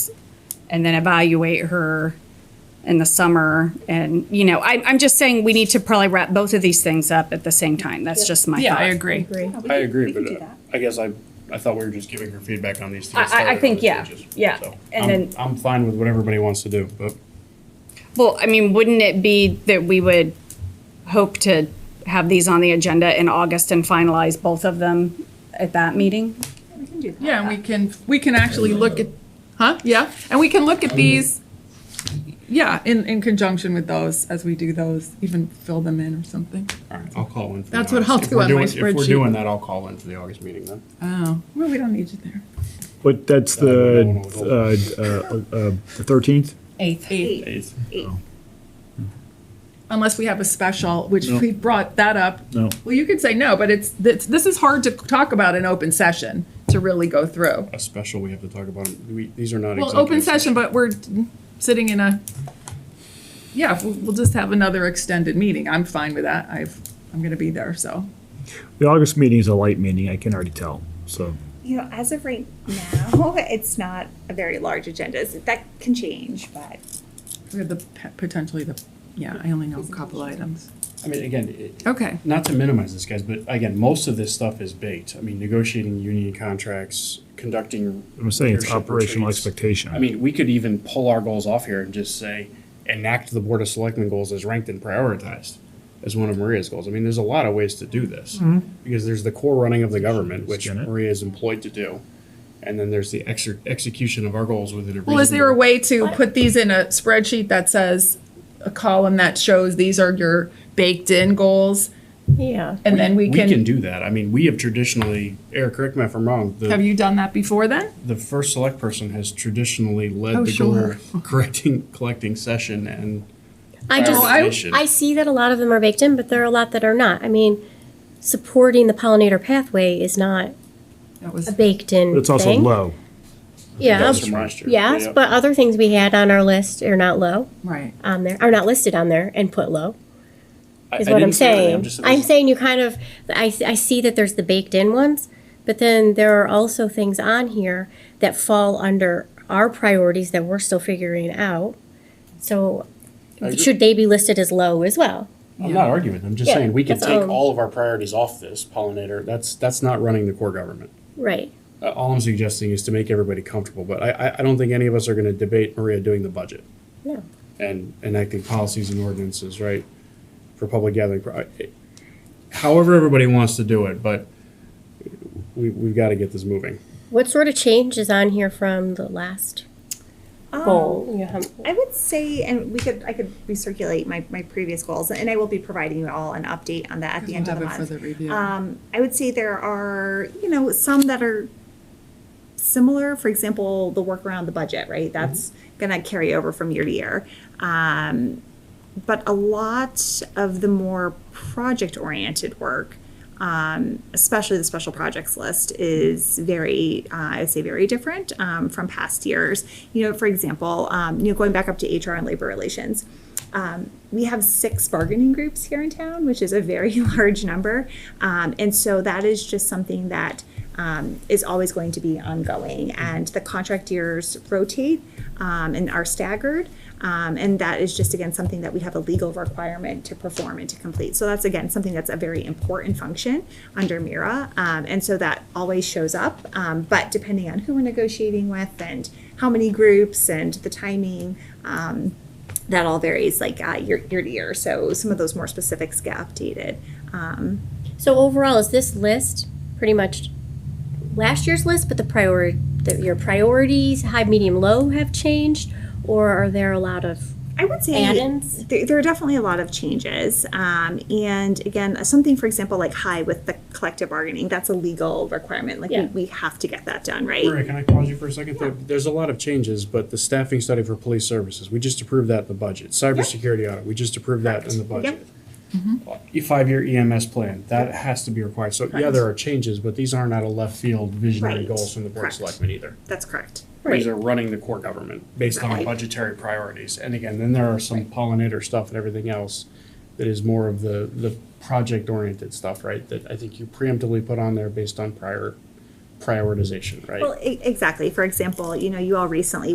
and then evaluate her in the summer. And, you know, I, I'm just saying we need to probably wrap both of these things up at the same time. That's just my Yeah, thought. I agree. we I can- agree, we can do but uh, that. I guess I, I thought we were just giving her feedback on these to I- get I- I started on think, the yeah, changes. yeah, So, and I'm- then- I'm fine with what everybody wants to do, but Well, I mean, wouldn't it be that we would hope to have these on the agenda in August and finalize both of them at that meeting? We can do that. Yeah, and we can, we can actually look at, huh? Yeah, and we can look at these, yeah, in, in conjunction with those, as we do those, even fill them in or something. all right, I'll call in. for the That's what August. I'll If do we're on my doing- If we're spreadsheet. doing that, I'll call in for the August meeting then. Uh, Oh, well, we don't need you there. But that's the uh, uh, uh, the 13th? Eighth. Eight. Eighth. Eight. Unless we have a special, which No. we brought that up. No. Well, you could say no, but it's, this, this is hard to talk about in open session, to really go through. A special we have to talk about, we, these are not. Well, executive open session, but we're sitting in a, yeah, we'll, we'll just have another extended meeting. I'm fine with that. I've, I'm gonna be there, so. The August meeting is a light meeting, I can already tell, so. You know, as of right now, it's not a very large agenda. So That can change, but We have the, pe- potentially the, yeah, I only know a couple items. I mean, again, it, Okay. not to minimize this, guys, but again, most of this stuff is baked. I mean, negotiating union contracts, conducting. I'm saying it's leadership operational retreats. expectation. I mean, we could even pull our goals off here and just say, enact the Board of Selectmen goals as ranked and prioritized as one of Maria's goals. I mean, there's a lot of ways to do this. Because there's the core running of the government, which Skin Mm-hmm. it. Maria is employed to do. And then there's the exer- execution of our goals within a reasonable. Well, is there a way to put these in a spreadsheet that says, a column that shows these are your baked-in goals? Yeah. And then we We can can, do that. I mean, we have traditionally, Eric, correct me if I'm wrong, the- have you done that before then? the first select person has traditionally led Oh, the sure. goal correcting collecting session and I just, Prioritization. I see that a lot of them are baked in, but there are a lot that are not. I mean, supporting the pollinator pathway is not That was, a baked in But it's also thing. low. Yeah. that's from last year. Yes, Yeah. but other things we had on our list are not low right. on there, are not listed on there and put low. I- is I what didn't I'm say anything. saying. I'm, just- saying you kind of, I, I see that there's the baked in ones, but then there are also things on here that fall under our priorities that we're still figuring out. So agree. should they be listed as low as well? I'm not arguing. I'm just Yeah, saying we can that's take all. all of our priorities off this pollinator. That's that's not running the core government. Right. Uh, all I'm suggesting is to make everybody comfortable. But I I, I don't think any of us are going to debate Maria doing the budget No. and enacting policies and ordinances right for public gathering. Pro- I- However, everybody wants to do it, but we we've got to get this moving. What sort of change is on here from the last um, goal? You have- I would say, and we could, I could recirculate my, my previous goals, and I will be providing you all an update on that at the We'll end of have the it for the month. review. Um, I would say there are, you know, some that are similar, for example, the work around the budget, right? That's gonna carry over from year to year. Um, but a lot of the more project-oriented work, um, especially the special projects list, is very, uh, I would say, very different um, from past years. You know, for example, um, you know, going back up to HR and labor relations, um, we have six bargaining groups here in town, which is a very large number, um, and so that is just something that um, is always going to be ongoing. And the contract years rotate um, and are staggered. Um, and that is just, again, something that we have a legal requirement to perform and to complete. So that's, again, something that's a very important function under MIRA. Um, and so that always shows up. Um, but depending on who we're negotiating with and how many groups and the timing, um, that all varies like uh, year, year to year. So some of those more specifics get updated. Um, So overall, is this list pretty much last year's list, but the priority, that your priorities, high, medium, low have changed? Or are there a lot of I would say add-ins? there, there are definitely a lot of changes. Um, and again, uh, something, for example, like high with the collective bargaining, that's a legal requirement. Like Yeah. we, we have to get that done, right? Maria, can I pause you for a second? There- There's a lot of changes, but the staffing study for police services, we just approved that in the budget. Cybersecurity audit, we just approved that in the budget. Mm-hmm. A Five-year EMS plan, that has to be required. So, yeah, there are changes, but these aren't out of left field visionary Right. goals from the Board of Correct. Selectmen either. That's correct. These are running the core government based on Right. budgetary priorities. And again, then there are some pollinator stuff and everything else that is more of the, the project-oriented stuff, right? That I think you preemptively put on there based on prior prioritization, right? Well, e- exactly. For example, you know, you all recently